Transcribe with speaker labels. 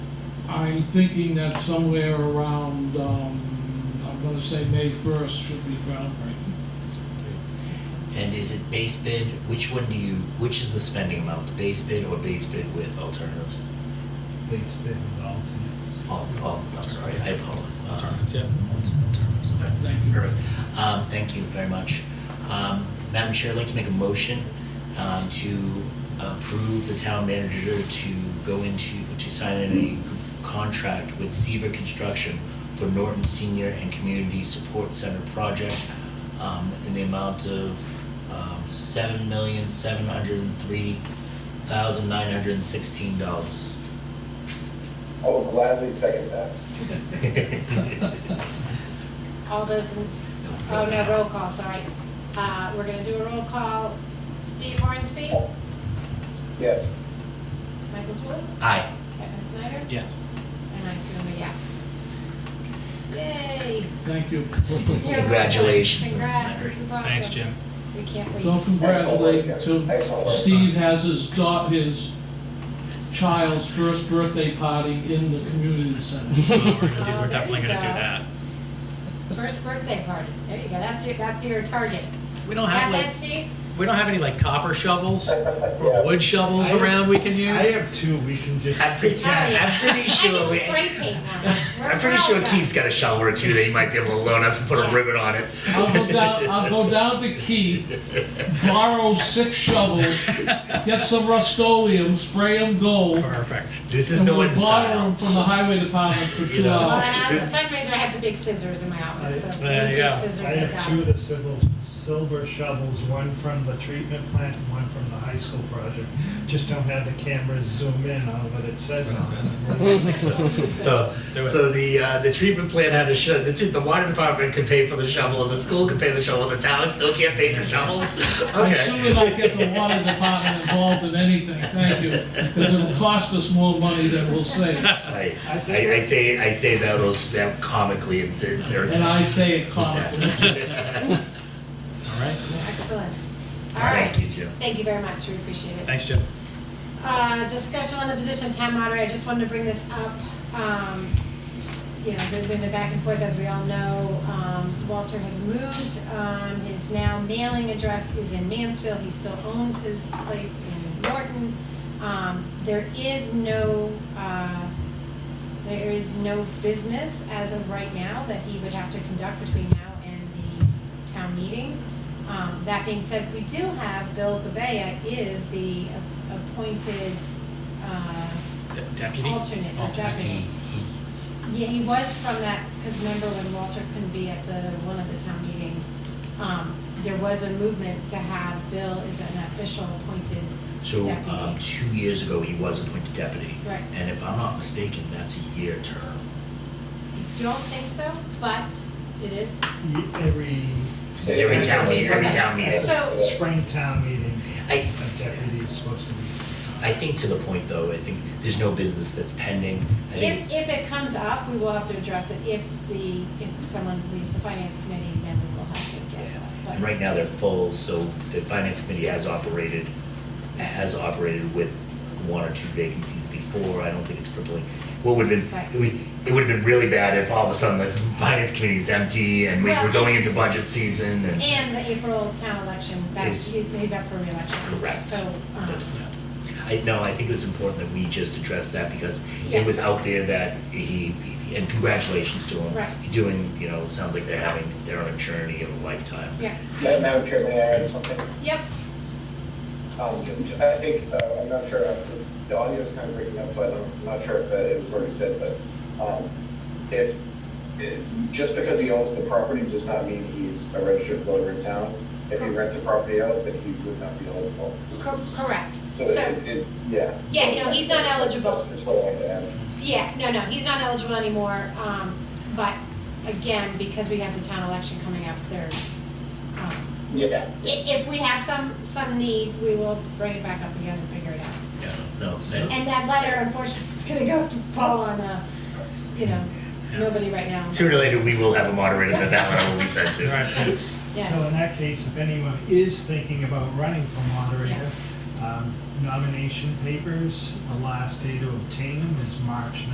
Speaker 1: I'm thinking that somewhere around, um, I'm gonna say May first should be groundbreaking.
Speaker 2: And is it base bid? Which one do you, which is the spending amount, the base bid or base bid with alternatives?
Speaker 3: Base bid with alternates.
Speaker 2: All, all, Oh, I'm sorry, I apologize. Uh,
Speaker 4: Alternatives, yeah.
Speaker 2: alter- Alternatives, okay.
Speaker 1: Thank you.
Speaker 2: Perfect. Um, thank you very much. Um, Madam Chair, I'd like to make a motion, um, to approve the town manager to go into, to sign a contract with Seaver Construction for Norton Senior and Community Support Center project, um, in the amount of, um, seven million, seven hundred and three thousand, nine hundred and sixteen dollars.
Speaker 5: I will Oh, gladly second that.
Speaker 6: All those, in- oh no, roll call, sorry. Uh, we're gonna do a roll call. Steve Hornsby,
Speaker 5: Yes,
Speaker 6: Michael Tool,
Speaker 2: Aye.
Speaker 6: Kevin Snyder,
Speaker 4: Yes.
Speaker 6: and I too am a yes. Yay!
Speaker 1: Thank you.
Speaker 6: You're right, guys.
Speaker 2: Congratulations, this is
Speaker 6: Congrats,
Speaker 2: great.
Speaker 6: this is awesome.
Speaker 4: Thanks, Jim.
Speaker 6: We can't wait.
Speaker 1: Don't congratulate, so
Speaker 5: excellent work.
Speaker 1: Steve has his da, his child's first birthday party in the community center.
Speaker 4: Well, we're, gonna do,
Speaker 6: Oh,
Speaker 4: we're
Speaker 6: there
Speaker 4: definitely
Speaker 6: you
Speaker 4: gonna do
Speaker 6: go.
Speaker 4: that.
Speaker 6: First birthday party, there you go, that's your, that's your target.
Speaker 4: We don't
Speaker 6: Got
Speaker 4: have
Speaker 6: that,
Speaker 4: like
Speaker 6: Steve?
Speaker 4: we don't have any like copper shovels or
Speaker 5: Yeah.
Speaker 4: wood shovels
Speaker 3: I-
Speaker 4: around we can
Speaker 3: I
Speaker 4: use.
Speaker 3: have two, we can just.
Speaker 2: I'm pretty, I'm pretty sure
Speaker 6: Oh, I
Speaker 2: we.
Speaker 6: can spray paint on it. We're
Speaker 2: I'm pretty
Speaker 6: proud
Speaker 2: sure
Speaker 6: of that.
Speaker 2: Keith's got a shovel or two that he might be able to loan us and put a ribbon on it.
Speaker 1: I'll go down, I'll go down to Keith, borrow six shovels, get some Rust-Oleum, spray them gold,
Speaker 4: Perfect.
Speaker 2: This is
Speaker 1: and
Speaker 2: no
Speaker 1: we'll
Speaker 2: one
Speaker 1: borrow them
Speaker 2: style.
Speaker 1: from the highway department for
Speaker 2: You
Speaker 1: two
Speaker 2: know.
Speaker 6: Well,
Speaker 1: hours.
Speaker 6: and as a fundraiser, I have the big scissors in my office, so
Speaker 4: There
Speaker 6: any
Speaker 4: you
Speaker 6: big
Speaker 4: go.
Speaker 3: I
Speaker 6: scissors I
Speaker 3: have two
Speaker 6: got.
Speaker 3: of the civil, silver shovels, one from the treatment plant and one from the high school project. Just don't have the cameras zoom in on what it says on it.
Speaker 2: So,
Speaker 4: do it.
Speaker 2: so the uh, the treatment plant had a shovel. The, the water department could pay for the shovel, and the school could pay the shovel. The town still can't pay for shovels.
Speaker 1: I soon
Speaker 2: Okay.
Speaker 1: not get the water department involved in anything, thank you, because it'll cost us more money than we'll save.
Speaker 2: I, I, I say I say that those that comically in sin-
Speaker 1: And
Speaker 2: serotonin.
Speaker 1: I say it calmly.
Speaker 4: All right.
Speaker 6: Excellent. All
Speaker 2: Thank
Speaker 6: right,
Speaker 2: you, Jim.
Speaker 6: thank you very much, we appreciate it.
Speaker 4: Thanks, Jim.
Speaker 6: Uh, discussion on the position of town moderator, I just wanted to bring this up. Um, You know, there's been a back and forth, as we all know. Um, Walter has moved, um, his now mailing address is in Mansfield, he still owns his place in Norton. Um, There is no, uh, there is no business as of right now that he would have to conduct between now and the town meeting. Um, That being said, we do have Bill Gabea is the appointed uh,
Speaker 4: De- deputy.
Speaker 6: alternate or deputy. Yeah, he was from that, because remember when Walter couldn't be at the, one of the town meetings, um, there was a movement to have Bill as an official appointed
Speaker 2: So um,
Speaker 6: deputy.
Speaker 2: two years ago, he was appointed deputy,
Speaker 6: Right.
Speaker 2: and if I'm not mistaken, that's a year term.
Speaker 6: Don't think so, but it is.
Speaker 3: Every.
Speaker 2: Every town meeting, every town meeting.
Speaker 6: So-
Speaker 3: Spring town meeting,
Speaker 2: I,
Speaker 3: a deputy is supposed to be. uh,
Speaker 2: I think to the point though, I think there's no business that's pending. I think,
Speaker 6: If, if it comes up, we will have to address it. If the, if someone leaves the finance committee, then we will have to address that.
Speaker 2: yeah.
Speaker 6: But-
Speaker 2: And right now they're full, so the finance committee has operated, has operated with one or two vacancies before. I don't think it's crippling. What would have
Speaker 6: Right.
Speaker 2: been, it would, it would have been really bad if all of a sudden the finance committee is empty and we were
Speaker 6: Well-
Speaker 2: going into budget season and.
Speaker 6: And the April town election, that's,
Speaker 2: Is-
Speaker 6: he's, he's up for reelection.
Speaker 2: Correct.
Speaker 6: So, um,
Speaker 2: That's- I, no, I think it's important that we just address that because
Speaker 6: Yeah.
Speaker 2: it was out there that he, and congratulations to him.
Speaker 6: Right.
Speaker 2: He's Doing, you know, sounds like they're having, they're on a journey of a lifetime.
Speaker 6: yeah,
Speaker 5: Ma- Madam Chair, may I add something?
Speaker 6: yep,
Speaker 5: Um, j- j- I think, uh, I'm not sure, uh, it's- the audio's kind of breaking up, so I'm not sure if uh, it was already said, but um, if, it- just because he owns the property does not mean he's a registered voter in town. If he rents a property out, then he would not be eligible.
Speaker 6: cor- correct.
Speaker 5: So
Speaker 6: So,
Speaker 5: it, it, yeah.
Speaker 6: Yeah, you know, he's not eligible.
Speaker 5: That's just what I had to add.
Speaker 6: yeah, no, no, he's not eligible anymore, um, but again, because we have the town election coming up, there's, um,
Speaker 5: Yeah.
Speaker 6: i- if we have some, some need, we will bring it back up again and figure it out.
Speaker 2: Yeah, no,
Speaker 3: So-
Speaker 2: no.
Speaker 6: And that letter unfortunately is gonna go to fall on, uh, you know, nobody right now.
Speaker 2: Sooner or later, we will have a moderator that that letter will be sent
Speaker 4: All
Speaker 2: to.
Speaker 4: right.
Speaker 3: So in
Speaker 6: Yes,
Speaker 3: that case, if anyone is thinking about running for moderator, um, nomination papers, the last day to obtain them is March